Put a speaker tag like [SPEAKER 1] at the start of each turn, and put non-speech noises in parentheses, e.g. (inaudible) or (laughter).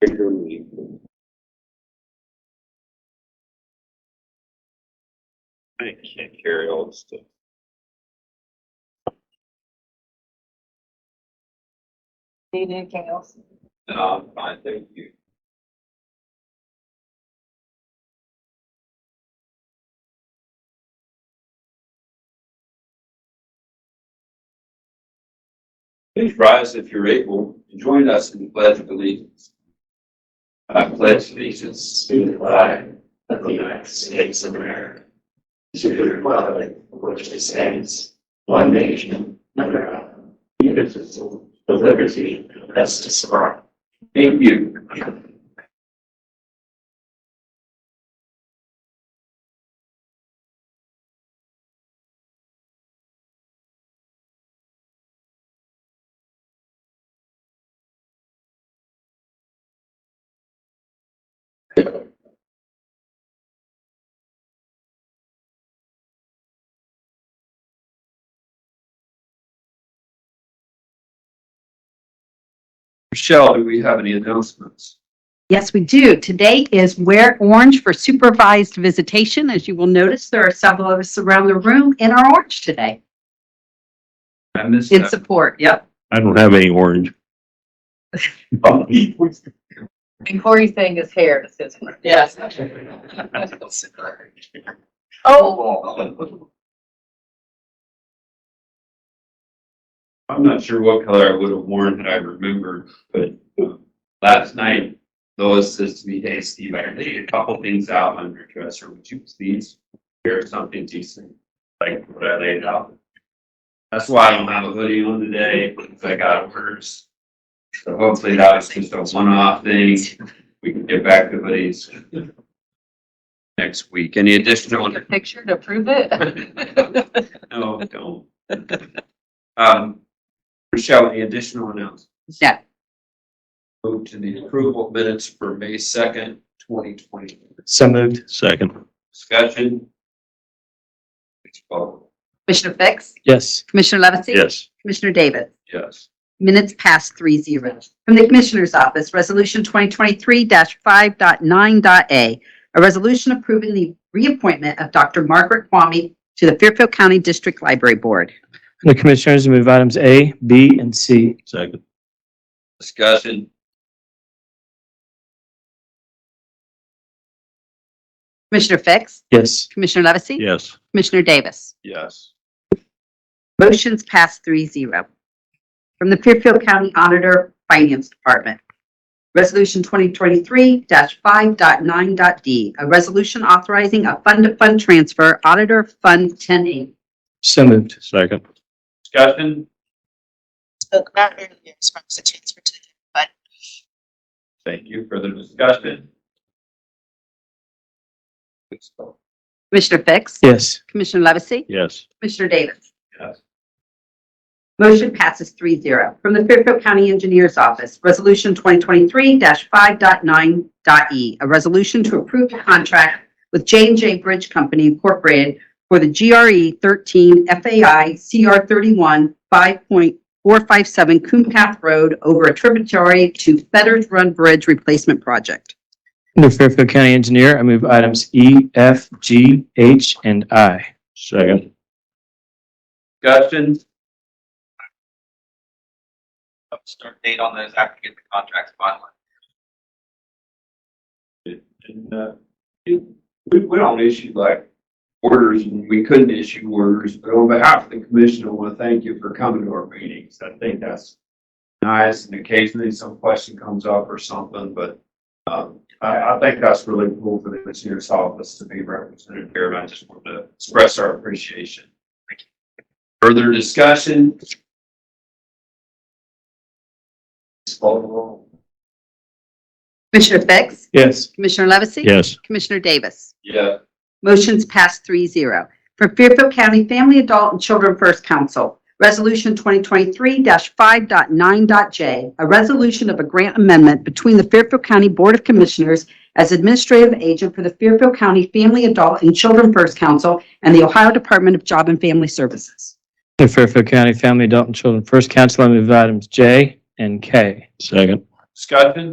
[SPEAKER 1] regularly I can't carry all this stuff.
[SPEAKER 2] Need anything else?
[SPEAKER 1] No, I'm fine, thank you. Please rise if you're able and join us in the pledge of allegiance. I pledge allegiance to the flag of the United States of America, to the republic for which it stands, one nation, under God, indivisible, with liberty and justice for all. Thank you. Michelle, do we have any announcements?
[SPEAKER 3] Yes, we do. Today is Wear Orange for Supervised Visitation. As you will notice, there are several of us around the room in our orange today
[SPEAKER 1] I missed
[SPEAKER 3] in
[SPEAKER 1] that.
[SPEAKER 3] support. Yep.
[SPEAKER 4] I don't have any orange.
[SPEAKER 2] And Corey's saying his hair is his.
[SPEAKER 1] Yes. Oh. I'm not sure what color I would have worn had I remembered, but um, last night Lois says to me, hey, Steve, I laid a couple things out on your dresser. Would you please wear something decent, like what I laid out? That's why I don't have a hoodie on today, because I got orders. So hopefully that was just a one-off thing. We can get back to hoodies next week. Any
[SPEAKER 5] (laughs)
[SPEAKER 1] additional?
[SPEAKER 2] A picture to prove it?
[SPEAKER 1] (laughs) No, don't. Um, Michelle, any additional announcements?
[SPEAKER 3] No.
[SPEAKER 1] Move to the approval of minutes for May second, twenty twenty.
[SPEAKER 4] So moved. Second.
[SPEAKER 1] Discussion? Please vote.
[SPEAKER 3] Commissioner Fix?
[SPEAKER 4] Yes.
[SPEAKER 3] Commissioner Levesey?
[SPEAKER 4] Yes.
[SPEAKER 3] Commissioner Davis?
[SPEAKER 1] Yes.
[SPEAKER 3] Minutes past three zero. From the Commissioner's Office, Resolution 2023-5.9.a, a resolution approving the reappointment of Dr. Margaret Kwame to the Fairfield County District Library Board.
[SPEAKER 6] The Commissioners move items A, B, and C.
[SPEAKER 4] Second.
[SPEAKER 1] Discussion?
[SPEAKER 3] Commissioner Fix?
[SPEAKER 6] Yes.
[SPEAKER 3] Commissioner Levesey?
[SPEAKER 4] Yes.
[SPEAKER 3] Commissioner Davis?
[SPEAKER 1] Yes.
[SPEAKER 3] Motion's passed three zero. From the Fairfield County Auditor Finance Department. Resolution 2023-5.9.d, a resolution authorizing a fund-to-fund transfer, Auditor Fund 10A.
[SPEAKER 6] So moved.
[SPEAKER 4] Second.
[SPEAKER 1] Discussion?
[SPEAKER 5] spoke about earlier as far as the transfer to the general fund.
[SPEAKER 1] Thank you. Further discussion? Please vote.
[SPEAKER 3] Commissioner Fix?
[SPEAKER 6] Yes.
[SPEAKER 3] Commissioner Levesey?
[SPEAKER 4] Yes.
[SPEAKER 3] Commissioner Davis?
[SPEAKER 1] Yes.
[SPEAKER 3] Motion passes three zero. From the Fairfield County Engineers Office, Resolution 2023-5.9.e, E, a resolution to approve the contract with j and J Bridge Company Incorporated for the E GRE 13 FAI CR 31 5.457 Coon Path Road over a tributary to Fetters Run Bridge Replacement Project.
[SPEAKER 6] Under Fairfield County Engineer, I move items E, F, G, H, and I.
[SPEAKER 4] Second.
[SPEAKER 1] Discussion?
[SPEAKER 7] start date on those after you get the contracts finalized.
[SPEAKER 1] And, uh, it- we, we don't issue like orders, and we couldn't issue orders, but on behalf of the commission, I want to thank you for coming to our meetings. I think that's nice, and occasionally some question comes up or something, but, um, I, I think that's really cool for the commissioner's office to be represented here, and I just want to express our appreciation. Further discussion? Please call the roll.
[SPEAKER 3] Commissioner Fix?
[SPEAKER 6] Yes.
[SPEAKER 3] Commissioner Levesey?
[SPEAKER 4] Yes.
[SPEAKER 3] Commissioner Davis?
[SPEAKER 1] Yeah.
[SPEAKER 3] Motion's passed three zero. From Fairfield County Family, Adult, and Children First Council, Resolution 2023-5.9.j, a resolution of a grant amendment between the Fairfield County Board of Commissioners as administrative agent for the Fairfield County Family, Adult, and Children First Council and the Ohio Department of Job and Family Services.
[SPEAKER 6] Under Fairfield County Family, Adult, and Children First Council, I move items J and K.
[SPEAKER 4] Second.
[SPEAKER 1] Discussion?